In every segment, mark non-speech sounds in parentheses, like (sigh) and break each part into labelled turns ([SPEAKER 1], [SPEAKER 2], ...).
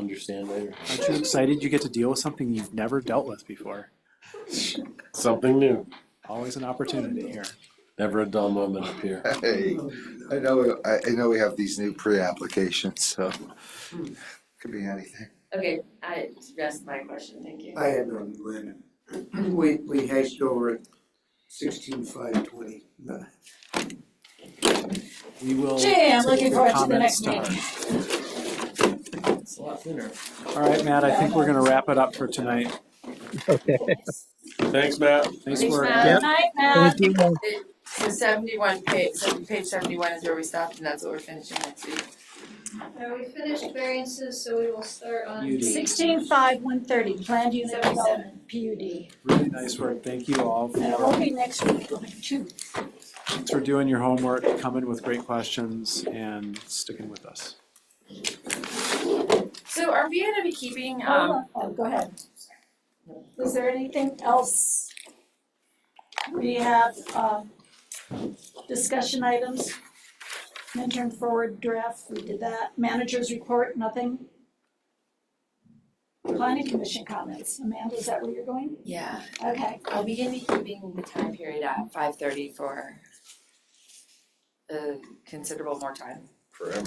[SPEAKER 1] understand later.
[SPEAKER 2] Aren't you excited you get to deal with something you've never dealt with before?
[SPEAKER 1] Something new.
[SPEAKER 2] Always an opportunity here.
[SPEAKER 1] Never a dull moment up here.
[SPEAKER 3] Hey, I know, I, I know we have these new pre-applications, so could be anything.
[SPEAKER 4] Okay, I rest my question, thank you.
[SPEAKER 5] I had on Lynn, we, we hashed over it sixteen five twenty.
[SPEAKER 2] We will.
[SPEAKER 6] Jay, I'm
[SPEAKER 2] take
[SPEAKER 6] looking
[SPEAKER 2] your
[SPEAKER 6] forward to the
[SPEAKER 2] comments
[SPEAKER 6] next meeting.
[SPEAKER 2] tomorrow.
[SPEAKER 1] It's a lot thinner.
[SPEAKER 2] All right, Matt, I think we're gonna wrap it up for tonight.
[SPEAKER 7] Okay.
[SPEAKER 8] (laughs)
[SPEAKER 1] Thanks, Matt.
[SPEAKER 2] Nice
[SPEAKER 4] Thanks,
[SPEAKER 2] work.
[SPEAKER 4] Matt.
[SPEAKER 6] Good night, Matt.
[SPEAKER 7] Thank you.
[SPEAKER 4] So seventy-one page, so page seventy-one is where we stopped and that's what we're finishing next week.
[SPEAKER 9] Uh, we finished variances, so we will start on.
[SPEAKER 2] You do.
[SPEAKER 9] page-
[SPEAKER 6] Sixteen five, one thirty, planned unit development, PUD.
[SPEAKER 2] Really nice work. Thank you all
[SPEAKER 6] And it won't
[SPEAKER 2] for,
[SPEAKER 6] be next week, it'll be two.
[SPEAKER 2] thanks for doing your homework, coming with great questions and sticking with us.
[SPEAKER 4] So are we gonna be keeping, um,
[SPEAKER 6] Oh, oh, Go ahead. Is there anything else? We have, um, discussion items. Intern forward draft, we did that. Managers report, nothing. Planning commission comments. Amanda, is that where you're going?
[SPEAKER 4] yeah,
[SPEAKER 6] Okay.
[SPEAKER 4] are we gonna be keeping the time period at five thirty for a considerable more time?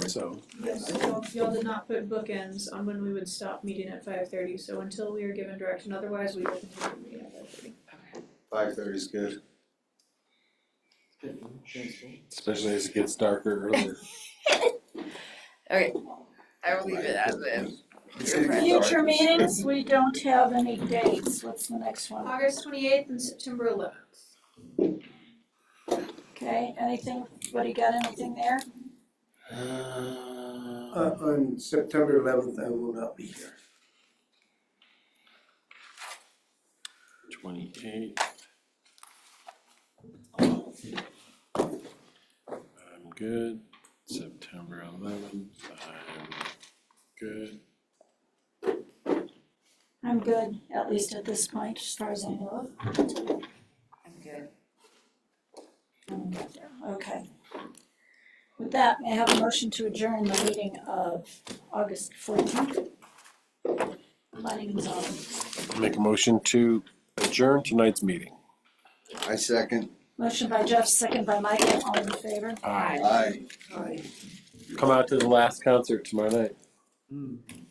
[SPEAKER 2] So
[SPEAKER 8] Yes, y'all, y'all did not put bookends on when we would stop meeting at five thirty, so until we are given direction, otherwise we will continue meeting at five thirty.
[SPEAKER 3] Five thirty is good.
[SPEAKER 1] Especially as it gets darker earlier.
[SPEAKER 4] I will leave it as is.
[SPEAKER 3] It's gonna get dark.
[SPEAKER 6] Future meetings, we don't have any dates. What's the next one?
[SPEAKER 9] August twenty-eighth and September eleventh.
[SPEAKER 6] Okay, anything? Anybody got anything there?
[SPEAKER 5] Uh, on September eleventh, I will not be here.
[SPEAKER 1] Twenty-eight. I'm good. September eleventh, I'm good.
[SPEAKER 6] I'm good, at least at this point, as far as I know.
[SPEAKER 4] I'm good.
[SPEAKER 6] Okay. With that, may I have a motion to adjourn the meeting of August fourteenth? Planning and zoning.
[SPEAKER 1] Make a motion to adjourn tonight's meeting.
[SPEAKER 3] I second.
[SPEAKER 6] Motion by Jeff, second by Michael, all in favor?
[SPEAKER 1] Aye.
[SPEAKER 3] Aye.
[SPEAKER 5] Aye.
[SPEAKER 1] Come out to the last concert tomorrow night.
[SPEAKER 2] Mm.